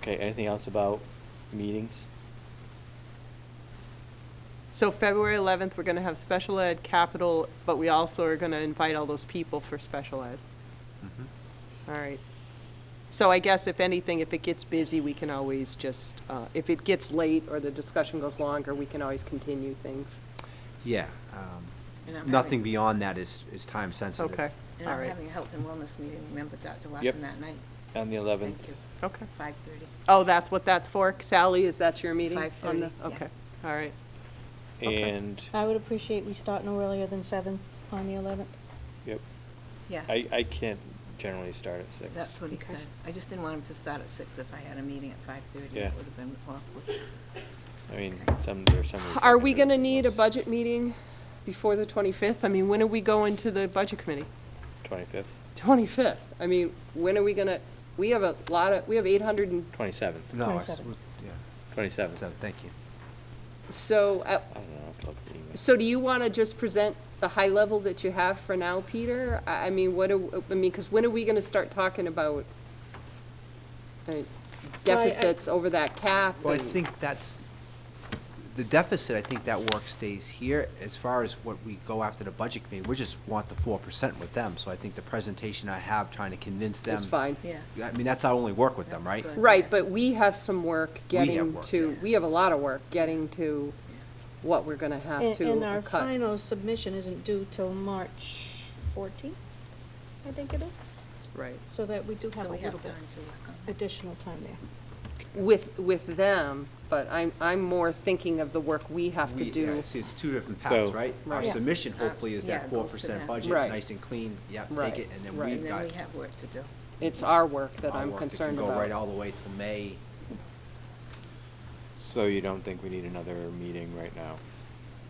Okay, anything else about meetings? So February 11th, we're going to have special ed, capital, but we also are going to invite all those people for special ed. Mm-hmm. All right. So I guess if anything, if it gets busy, we can always just, uh, if it gets late or the discussion goes longer, we can always continue things. Yeah, um, And I'm nothing having- beyond that is, is time sensitive. Okay, And all I'm right. having a health and wellness meeting, remember Dr. Yep. Larkin that night? On the eleventh? Thank you. Okay. Five thirty. Oh, that's what that's for? Sally, is that your meeting? on the- 5:30, yeah. Okay, all right. Okay. And, I would appreciate we start no earlier than seven on the eleventh. yep, Yeah. I, I can't generally start at six. That's what he Okay. said. I just didn't want him to start at six. If I had a meeting at five thirty, Yeah. it would have been awkward. I mean, Okay. some, there's some. reason I Are can we do it going to at need a once. budget meeting before the 25th? I mean, when are we going to the budget committee? 25th, 25th? I mean, when are we going to, we have a lot of, we have 800 and 27th, No, I s- 27. was- yeah, 27th. so, thank you. So, uh, I don't know, I have to look at the email. so do you want to just present the high level that you have for now, Peter? I, I mean, what do, I mean, because when are we going to start talking about uh, deficits over that cap? Well, I and- think that's, the deficit, I think that work stays here. As far as what we go after the budget committee, we just want the four percent with them. So I think the presentation I have trying to convince them. It's fine. Yeah. I mean, that's our only work with them, right? That's good. Right, but we have some work We have getting work, to, yeah. we have a lot of work getting to what we're going to have And, to and our uh, cut. final submission isn't due till March fourteenth, I think it is, Right. so that we do have So a we little have bit time to uh-huh. work on it. additional time there. With, with them, but I'm, I'm more thinking of the work we have to We- do. yeah, See, it's two different So- paths, right? Our Right. submission hopefully is Yeah, that it goes four to percent them. budget, Right. nice and clean, yep, Right, take it, and then right. we've And then got we have work to do. It's our work that our I'm work that concerned can go right all about. the way till May. So you don't think we need another meeting right now?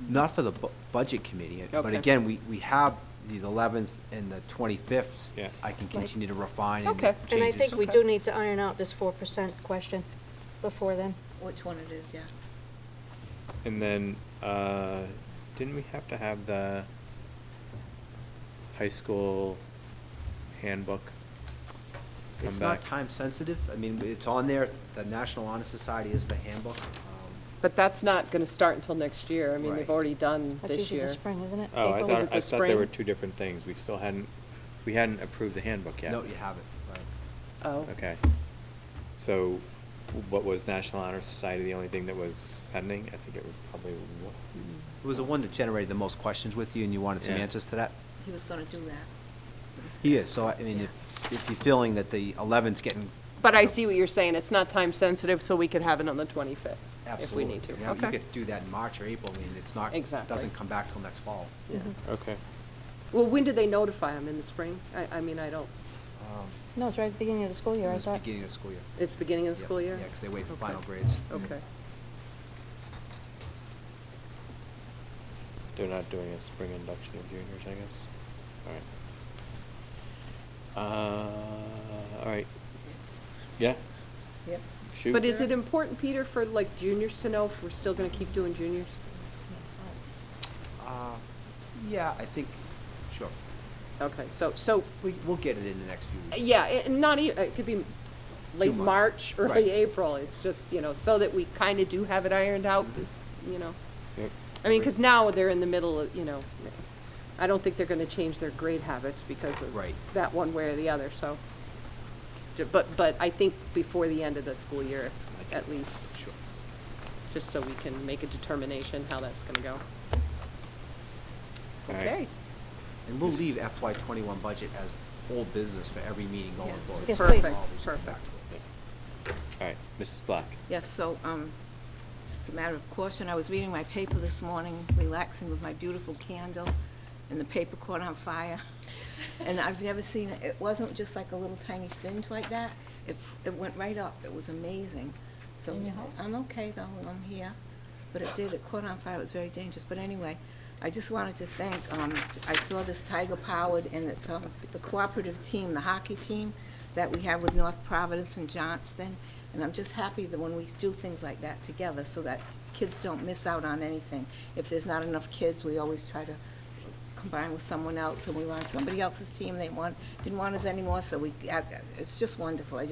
Not for the bu- budget committee, but Okay. again, we, we have the eleventh and the twenty-fifth. Yeah. I can Right. continue to refine and Okay. make And I changes. think we Okay. do need to iron out this four percent question before then. Which one it is, yeah. And then, uh, didn't we have to have the high school handbook come It's not back? time sensitive, I mean, it's on there, the National Honor Society is the handbook. um, But that's not gonna start until next year. I mean, they've Right. already done That's this usually year. the spring, isn't it? Oh, I April? Was it thought, I the thought there were spring? two different things. We still hadn't, we hadn't approved the handbook yet. No, you haven't, right. Oh. Okay. So what was National Honor Society the only thing that was pending? I think it was probably, Mm-hmm. wa- It was the one that generated the most questions with you, and you wanted some Yeah. answers to that? He was gonna do that. He is, so I I mean, Yeah. if, if you're feeling that the eleventh's getting. But I see what you're saying. It's not time sensitive, so we could have it on the twenty-fifth if we need to. Absolutely. Now, You Okay. could do that in March or April, I mean, it's not, Exactly. doesn't come back till next fall. Yeah. Mm-hmm. okay. Well, when do they notify them? In the spring? I, I mean, I don't, Um, No, it's right at the beginning of the school year, it I was thought. Beginning of the school year. it's beginning of the Yeah, school year? Yeah, because they wait Mm-hmm. for Okay. Oh. final grades. Okay. They're not doing a spring induction of juniors, I guess. All right. Uh, all right. Yeah, Yes. shoot. But is it important, Peter, for like juniors to know if we're still gonna keep doing juniors? Uh, Yeah, I think, sure. Okay, so, so, We, we'll get it in the next few weeks. yeah, it, not even, it could be late months. March, Right. early April. It's just, you know, so that we kinda do have it ironed out, you know? Yep. I mean, because now they're in the middle of, you know, I don't think they're gonna change their grade habits because of Right. that one way or the other, so. Ju- But, but I think before the end of the school year, at least, Sure. just so we can make a determination how that's gonna go. All right. Okay, And we'll leave FY twenty-one budget as old business for every meeting going Yeah. forward. Yes, So it's please. all these Perfect, factual. All right, Mrs. Black. Yes, so, um, it's a matter of caution. I was reading my paper this morning, relaxing with my beautiful candle, and the paper caught on fire. And I've never seen, it It wasn't just like a little tiny singe like that. It, f- it went right up. It was amazing. So In your house? I'm okay though, I'm here. But it did, it caught on fire. It was very dangerous. But anyway, I just wanted to thank, um, I saw this Tiger Powered and it's, um, the cooperative team, the hockey team that we have with North Providence and Johnston. And I'm just happy that when we do things like that together, so that kids don't miss out on anything. If there's not enough kids, we always try to combine with someone else, and we were on somebody else's team, they want, didn't want us anymore, so we, got- it's just wonderful. I just